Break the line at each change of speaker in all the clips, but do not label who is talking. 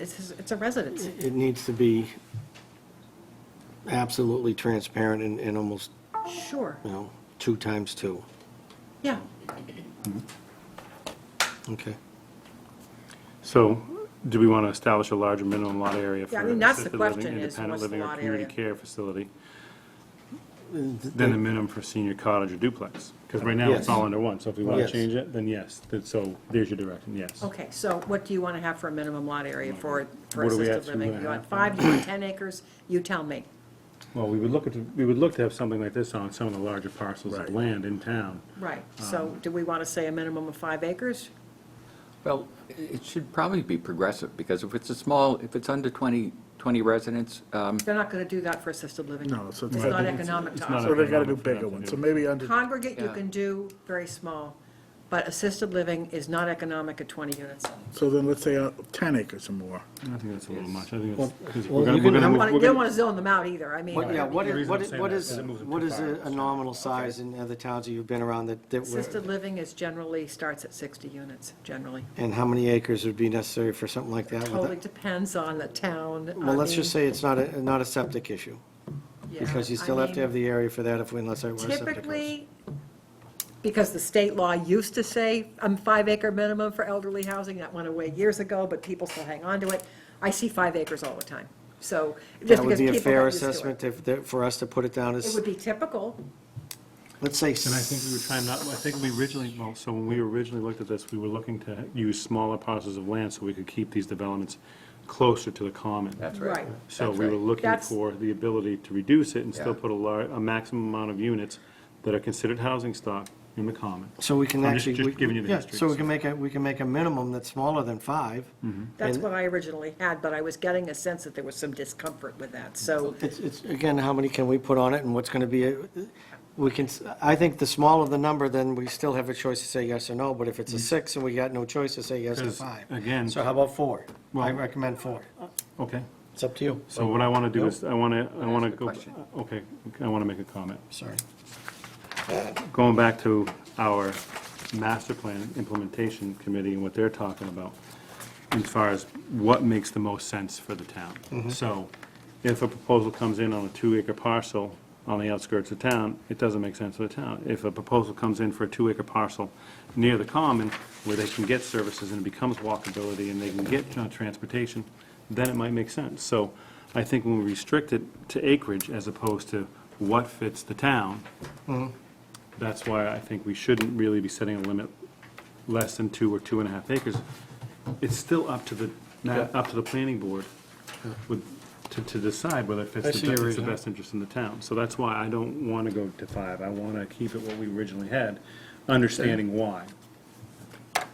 It's, his- it's a residence.
It needs to be absolutely transparent and, and almost,
Sure,
you know, two times two.
yeah.
Okay.
So, do we want to establish a larger minimum lot area for
Yeah, I mean, that's the
assisted living,
question is,
independent
what's the
living, or
lot
community
area?
care facility than the minimum for senior cottage or duplex? Because right now,
Yes.
it's all under one, so if we want
Yes.
to change it, then yes, Then- so there's your direction, yes.
Okay, so what do you want to have for a minimum lot area for, for
What are we
assisted
actually
living?
gonna
You want
have?
five, you want 10 acres? You tell me.
Well, we would look at, we would look to have something like this on some of the larger parcels of land in town.
Right, so do we want to say a minimum of five acres?
Well, it should probably be progressive, because if it's a small, if it's under 20, 20 residents, um,
They're not going to do that for assisted living.
No, so
It's
it's-
not economic to
it's not
us.
So they gotta do
economic for
bigger
them to
ones,
do.
so maybe under,
Congregate you
Yeah.
can do very small, but assisted living is not economic at 20 units.
so then let's say uh, 10 acres or more.
I think that's a little much, I think that's, 'cause
well, you
we're gonna, we're
can-
You
gonna
don't
move-
want
we're
to,
gonna-
zone them out either, I mean.
What, yeah, what
The
is,
reason
what
I'm
is,
saying
what
that
is,
is it moves it
what
too
is
far,
a a
so-
nominal size in other towns that you've been around that, that
Assisted
were,
living is generally, starts at 60 units, generally.
and how many acres would be necessary for something like that?
Totally depends on the town.
Well,
I
let's just
mean,
say it's not a, not a septic issue,
yeah,
because you
I
still have to
mean-
have the area for that if, unless I were a septic. house.
Typically, because the state law used to say um five acre minimum for elderly housing, that went away years ago, but people still hang on to it. I see five acres all the time, so, just
That
because
would be
people
a
got used
fair
to
assessment
it.
if, that- for us to put it down
It
as,
would be typical,
let's say,
And I think we were trying not, I think we originally, well, so when we originally looked at this, we were looking to use smaller parcels of land so we could keep these developments closer to the common.
that's
right,
right.
So
That's
we were
right.
looking
That's-
for the ability to reduce it and still
Yeah.
put a lar, a maximum amount of units that are considered housing stock in the common.
so we can
I'm just-
actually.
just
we-
giving you the
yeah,
history,
So we
so-
can make a, we can make a minimum that's smaller than five.
Mm-hmm.
that's
And-
what I originally had, but I was getting a sense that there was some discomfort with that, so,
It's, it's, again, how many can we put on it and what's going to be, a- we can, s- I think the smaller the number, then we still have a choice to say yes or no, but if it's a six and we got no choice to say yes to
'Cause,
five.
Mm-hmm. again-
So how about four? I
Well-
recommend four.
Okay.
It's up to you.
So what I want to do is, I want to, I want to
Ask a
go,
question.
okay, I want to make a comment.
Sorry.
Going back to our master plan implementation committee and what they're talking about as far as what makes the most sense for the town. So if a proposal comes in on a two-acre parcel on the outskirts of town, it doesn't make sense for the town. If a proposal comes in for a two-acre parcel near the common, where they can get services and it becomes walkability and they can get uh, transportation, then it might make sense. So I think when we restrict it to acreage as opposed to what fits the town, that's why I think we shouldn't really be setting a limit less than two or two and a half acres. It's still up to the, up to the planning board with, to, to decide whether it
I
fits
see
the,
your
it's the
reasoning.
best interest in the town. So that's why I don't want to go to five. I want to keep it what we originally had, understanding why.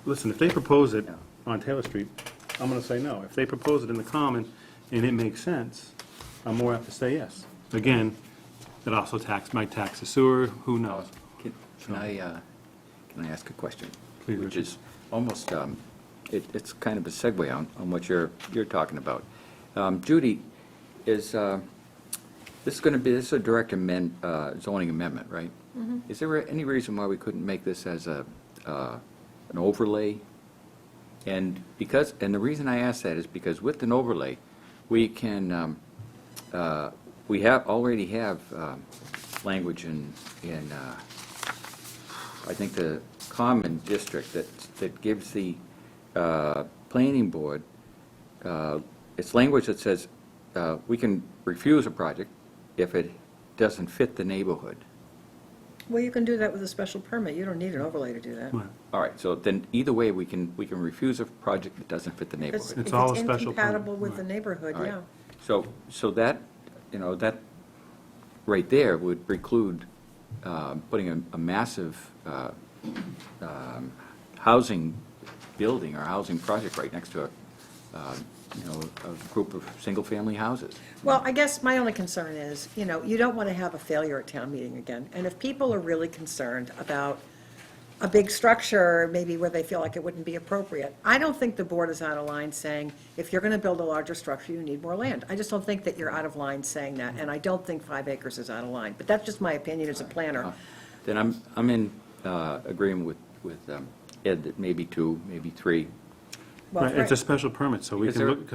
Listen, if they propose it on Taylor Street, I'm going to say no. If they propose it in the common and it makes sense, I'm more apt to say yes. Again, it also tax, might tax the sewer, who knows?
Can can I, uh, can I ask a question?
Please,
Which
Richard.
is almost, um, it- it's kind of a segue on, on what you're, you're talking about. Um, Judy, is, uh, this is going to be, this is a direct amend, uh, zoning amendment, right? Is there any reason why we couldn't make this as a, uh, an overlay? And because, and the reason I ask that is because with an overlay, we can, um, uh, we have, already have um, language in, in, uh, I think the common district that, that gives the uh, planning board, uh, it's language that says, uh, we can refuse a project if it doesn't fit the neighborhood.
well, you can do that with a special permit, you don't need an overlay to do that.
Right.
All right, so then either way, we can, we can refuse a project that doesn't fit the
If
neighborhood.
If it's
all a special permit,
incompatible with the
right.
neighborhood,
All right.
yeah.
So, so that, you know, that, right there would preclude uh, putting a- a massive uh, um, housing building or housing project right next to a, uh, you know, a group of single-family houses.
Well, I guess my only concern is, you know, you don't want to have a failure at town meeting again. And if people are really concerned about a big structure, maybe where they feel like it wouldn't be appropriate, I don't think the board is out of line saying, if you're going to build a larger structure, you need more land. I just don't think that you're out of line saying that, and I don't think five acres is out of line. But that's just my opinion as a planner.
Then I'm, I'm in uh, agreement with, with um, Ed that maybe two, maybe three,
Well,
Right, It's a
right.
special permit, so we
Is
can
there-
look, because